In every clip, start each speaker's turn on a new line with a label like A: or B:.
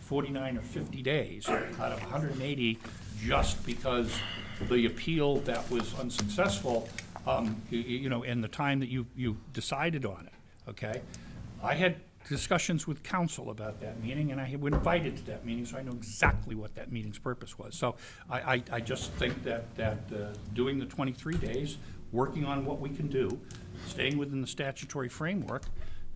A: 49 or 50 days out of 180 just because the appeal that was unsuccessful, um, y- y- you know, and the time that you, you decided on it, okay? I had discussions with council about that meeting, and I was invited to that meeting, so I know exactly what that meeting's purpose was. So I, I, I just think that, that uh, doing the 23 days, working on what we can do, staying within the statutory framework,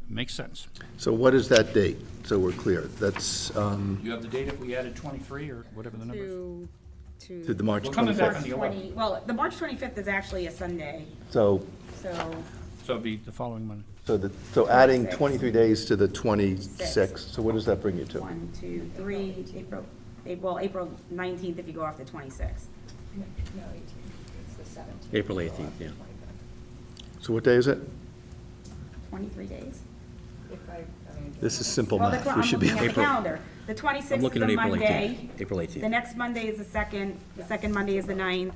A: makes sense.
B: So what is that date? So we're clear. That's um,
A: You have the date if we added 23 or whatever the number is.
C: to, to.
B: to the March
A: We're coming back on
B: 25th.
A: the 11th,
C: 20 Well, the March 25th is actually a Sunday,
B: So,
C: so
A: so it'd be the following Monday.
B: so the, so adding
C: 26th.
B: 23 days to the 26th, so what does that bring you to?
C: one, two, three, April, April- well, April 19th if you go off the 26th.
D: No, eighteenth, it's the seventeenth.
E: April 18th, yeah.
B: So what day is it?
C: 23 days?
D: If I, I mean.
B: This is simple
C: Well, the
B: math.
C: cl-
B: We
C: I'm
B: should be.
C: looking at the calendar. The 26th
E: I'm
C: is
E: looking
C: a
E: at April
C: Monday.
E: 18th. April
C: The
E: 18th.
C: next Monday is the second, the second Monday is the 9th.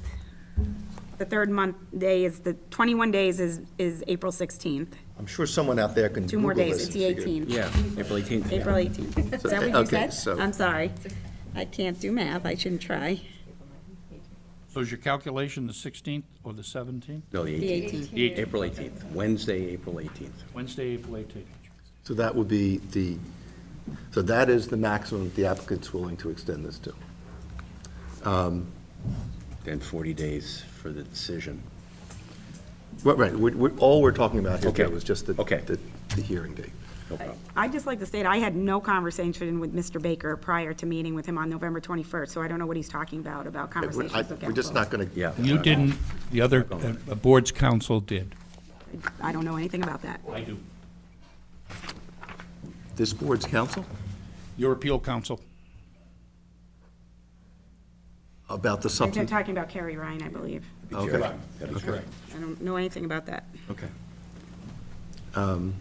C: The third month day is, the 21 days is, is April 16th.
B: I'm sure someone out there can
C: Two more
B: Google
C: days,
B: this.
C: it's the 18th.
E: Yeah, April 18th. yeah.
C: April 18th. Is that what
B: Okay,
C: you said?
B: so-
C: I'm sorry. I can't do math, I shouldn't try.
A: So is your calculation the 16th or the 17th?
E: No, the
C: The
E: 18th.
C: 18th.
A: The 18th.
E: April 18th, Wednesday, April 18th.
A: Wednesday, April 18th.
B: So that would be the, so that is the maximum that the applicant's willing to extend this to.
E: Then 40 days for the decision.
B: Right, Right, we- we- all we're talking about here
E: Okay.
B: was just the,
E: Okay.
B: the the hearing date.
E: No problem.
C: I'd just like to state, I had no conversation with Mr. Baker prior to meeting with him on November 21st, so I don't know what he's talking about, about conversations
B: I-
C: with council.
B: We're just not going to.
E: Yeah.
A: You didn't, the other, uh, board's council did.
C: I don't know anything about that.
A: I do.
B: This board's counsel?
A: Your appeal council.
B: About the
C: They're
B: something.
C: talking about Carrie Ryan, I believe.
B: Okay.
E: That'd be
A: Correct.
C: I don't know anything about that.
B: Okay. Um,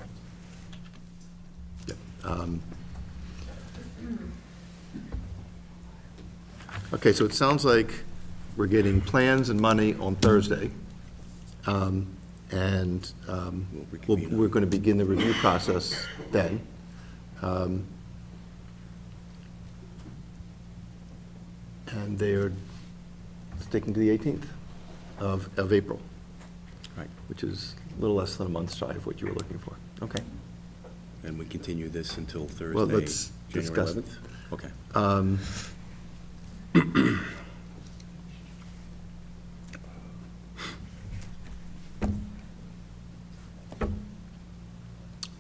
B: Okay, so it sounds like we're getting plans and money on Thursday. um, And um, we'll-
E: reconvene on-
B: we're going to begin the review process then. Um, And they're sticking to the 18th of, of April,
E: Right,
B: which is a little less than a month's shy of what you were looking for. Okay.
E: and we continue this until Thursday,
B: Well,
E: January
B: let's discuss-
E: 11th? Okay.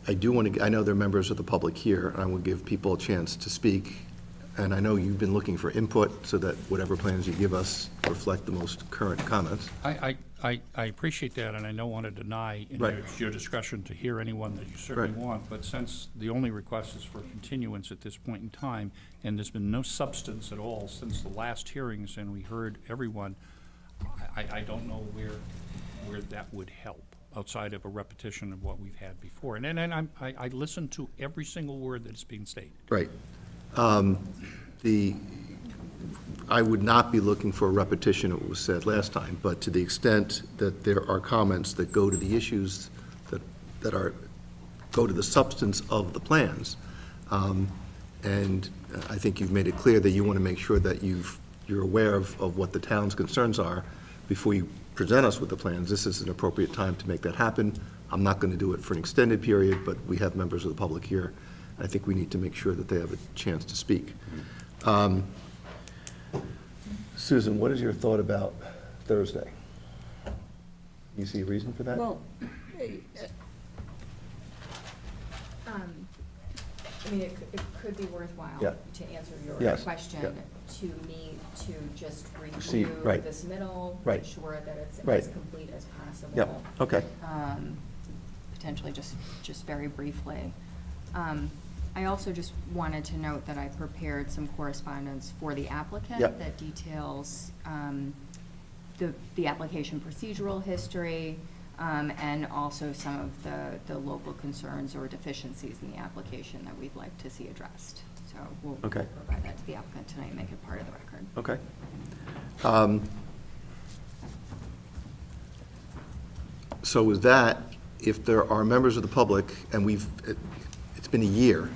B: I do want to, I know there are members of the public here, and I will give people a chance to speak. And I know you've been looking for input, so that whatever plans you give us reflect the most current comments.
A: I, I, I- I appreciate that, and I don't want to deny in
B: Right.
A: your- your discretion to hear anyone that you certainly
B: Right.
A: want, but since the only request is for continuance at this point in time, and there's been no substance at all since the last hearings, and we heard everyone, I, I- I don't know where, where that would help, outside of a repetition of what we've had before. And, and and I'm, I, I listen to every single word that's being stated.
B: Right. Um, The, I would not be looking for a repetition of what was said last time, but to the extent that there are comments that go to the issues that, that are, go to the substance of the plans, um, and I think you've made it clear that you want to make sure that you've, you're aware of, of what the town's concerns are before you present us with the plans, this is an appropriate time to make that happen. I'm not going to do it for an extended period, but we have members of the public here. I think we need to make sure that they have a chance to speak. Um, Susan, what is your thought about Thursday? You see a reason for that?
D: Well, um, I mean, it could, it could be worthwhile
B: Yeah.
D: to answer your
B: Yes, yeah.
D: question to me to just
B: See,
D: review
B: right.
D: this middle,
B: Right.
D: make sure that it's as
B: Right.
D: complete as possible.
B: Yeah, okay.
D: um, potentially just, just very briefly. Um, I also just wanted to note that I prepared some correspondence for the applicant
B: Yep.
D: that details um, the, the application procedural history um, and also some of the, the local concerns or deficiencies in the application that we'd like to see addressed. So we'll we'll
B: Okay.
D: provide that to the applicant tonight, and make it part of the record.
B: Okay. Um, So with that, if there are members of the public, and we've, it- it's been a year,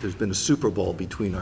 B: there's been a Super Bowl between our.